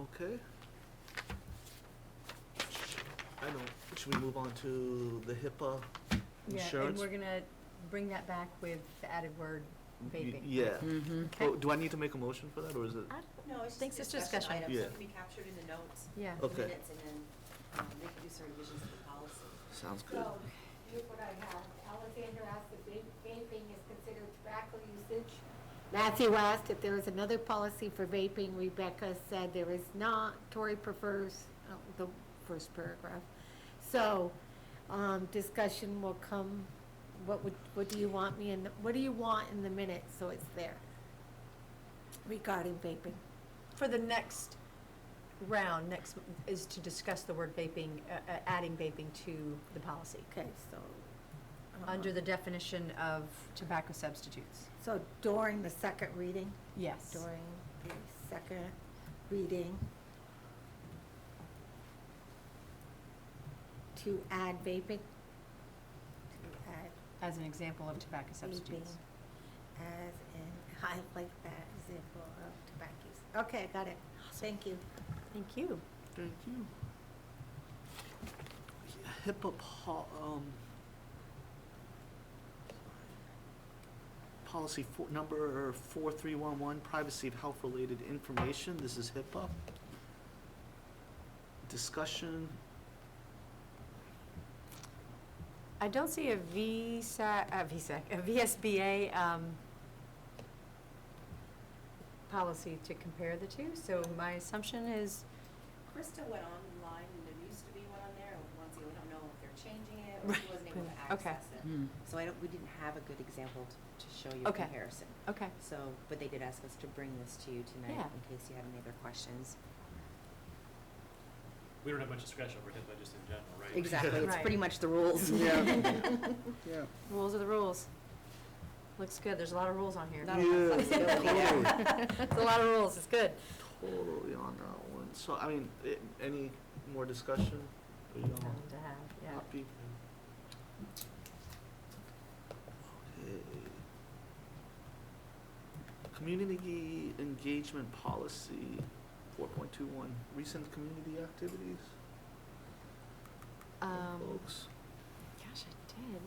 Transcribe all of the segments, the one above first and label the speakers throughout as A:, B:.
A: Okay. I know, should we move on to the HIPAA insurance?
B: Yeah, and we're gonna bring that back with the added word
A: Y-
B: vaping.
A: Yeah.
C: Mm-hmm.
A: Oh, do I need to make a motion for that, or is it?
D: I don't know, it's
B: Thanks,
D: just
B: it's
D: discussion
B: discussion.
D: items, so
A: Yeah.
D: it can be captured in the notes,
B: Yeah,
D: the
A: Okay.
D: minutes, and then um, they can do some revisions of the policy.
A: Sounds good.
E: So, here's what I have. Alexander asked if va- vaping is considered tobacco usage. Matthew asked if there is another policy for vaping. Rebecca said there is not. Tori prefers uh, the first paragraph. So, um, discussion will come, what would, what do you want me in, the- what do you want in the minutes, so it's there regarding vaping?
B: for the next round, next, m- is to discuss the word vaping, uh, uh, adding vaping to the policy.
E: Okay, so. uh,
B: Under the definition of tobacco substitutes.
E: So during the second reading?
B: Yes.
E: during the second reading to add vaping, to add
B: As an example of tobacco
E: vaping
B: substitutes.
E: as in, I like that example of tobacco. use. Okay, I got it. Thank you.
B: Thank you.
A: Thank you. HIPAA po- um, policy four, number four three one one, privacy of health-related information, this is HIPAA. Discussion,
B: I don't see a VSAC, a VSAC, a VSBA um, policy to compare the two, so my assumption is,
D: Krista went online, and there used to be one on there, and once again, we don't know if they're changing it, or she wasn't able to
B: Right. Okay. Hmm.
D: access it. So I don't, we didn't have a good example t- to show you a
B: Okay.
D: comparison.
B: okay,
D: So, but they did ask us to bring this to you tonight,
B: Yeah.
D: in case you have any other questions.
F: We don't have much discretion over HIPAA just in general, right?
D: Exactly, it's pretty
B: Right.
D: much the rules.
A: yeah.
B: rules are the rules. Looks good, there's a lot of rules on here.
D: Not a lot of
A: Yeah,
D: flexibility there.
B: It's a lot of rules, it's good.
A: Totally on that one, so, I mean, it, any more discussion? Are you all
B: to have,
A: happy? Okay. Community engagement policy, four point two one, recent community activities,
B: Um,
A: folks.
B: gosh, I did.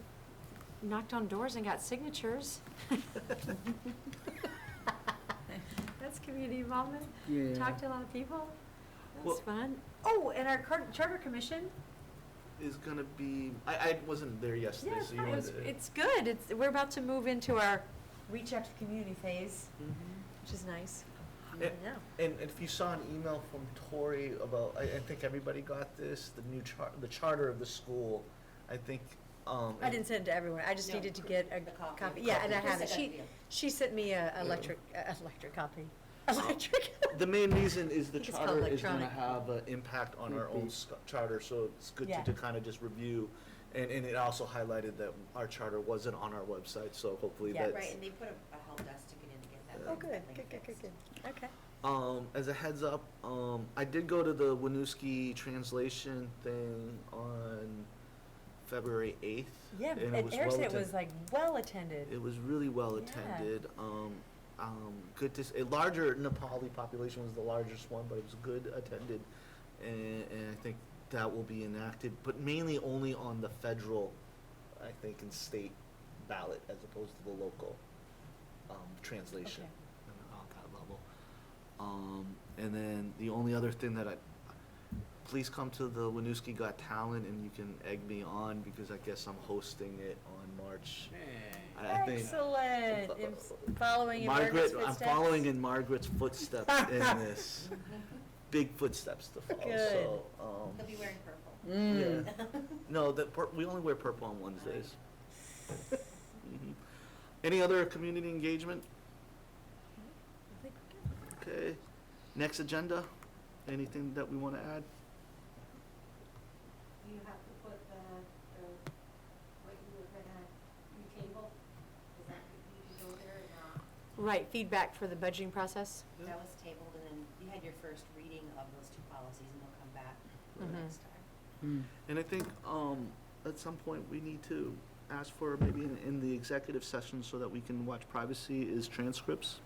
B: Knocked on doors and got signatures. That's community involvement.
A: Yeah.
B: Talked to a lot of people.
A: Well-
B: That's fun. Oh, and our cur- charter commission.
A: Is gonna be, I, I wasn't there yesterday,
B: Yeah, it's
A: so you
B: fun. It
A: wanted
B: was-
A: to.
B: It's good. It's, we're about to move into our reach out to the community phase,
A: Mhm.
B: which is nice.
D: Eh,
A: It-
B: Yeah.
A: And if you saw an email from Tori about, I, I think everybody got this, the new char, the charter of the school, I think, um.
B: I didn't send it to everyone. I just
D: No,
B: needed to get a
D: The copy.
B: copy. Yeah, and I
D: Krista
B: have it.
D: got
B: She,
D: you.
B: she sent me a electric, a electric copy. Electric.
A: Oh. The main reason is the
B: I think it's called
A: charter is gonna
B: electronic.
A: have an impact on our own sc- charter, so it's good to,
B: Yeah.
A: to kinda just review. And, and it also highlighted that our charter wasn't on our website, so hopefully
B: Yeah,
A: that's.
D: Right, and they put a a help desk to get in to get that.
A: Oh,
D: link- that link fixed.
B: Okay.
A: Um, as a heads up, um, I did go to the Winooski translation thing on February eighth.
B: Yeah,
A: and
B: and Eric
A: well
B: said it
A: attended.
B: was like well attended.
A: It was really well
B: Yeah.
A: attended. Um, um, good to s- a larger Nepali population was the largest one, but it was good attended, and, and I think that will be enacted, but mainly only on the federal, I think, and state ballot as opposed to the local um, translation and on that level. Um, and then the only other thing that I, please come to the Winooski Got Talent, and you can egg me on because I guess I'm hosting it on March
F: Hey.
A: I think
B: Excellent.
A: Uh,
B: It's Following in Margaret's
A: Margaret, I'm
B: footsteps.
A: following in Margaret's footsteps in this. Big footsteps to follow, so,
D: They'll be
A: um,
D: wearing purple.
A: yeah. No, the, pur- we only wear purple on Wednesdays. Mhm. Any other community engagement?
B: I think we're good.
A: Okay, next agenda, anything that we wanna add?
E: You have to put the, the, what you were gonna, you table, is that, you can go there or not?
B: Right, feedback for the budgeting process?
D: That was tabled, and then you had your first reading of those two policies, and they'll come back the
A: Mm-hmm.
B: Mhm.
D: next time.
A: And I think, um, at some point, we need to ask for maybe in, in the executive session so that we can watch privacy is transcripts.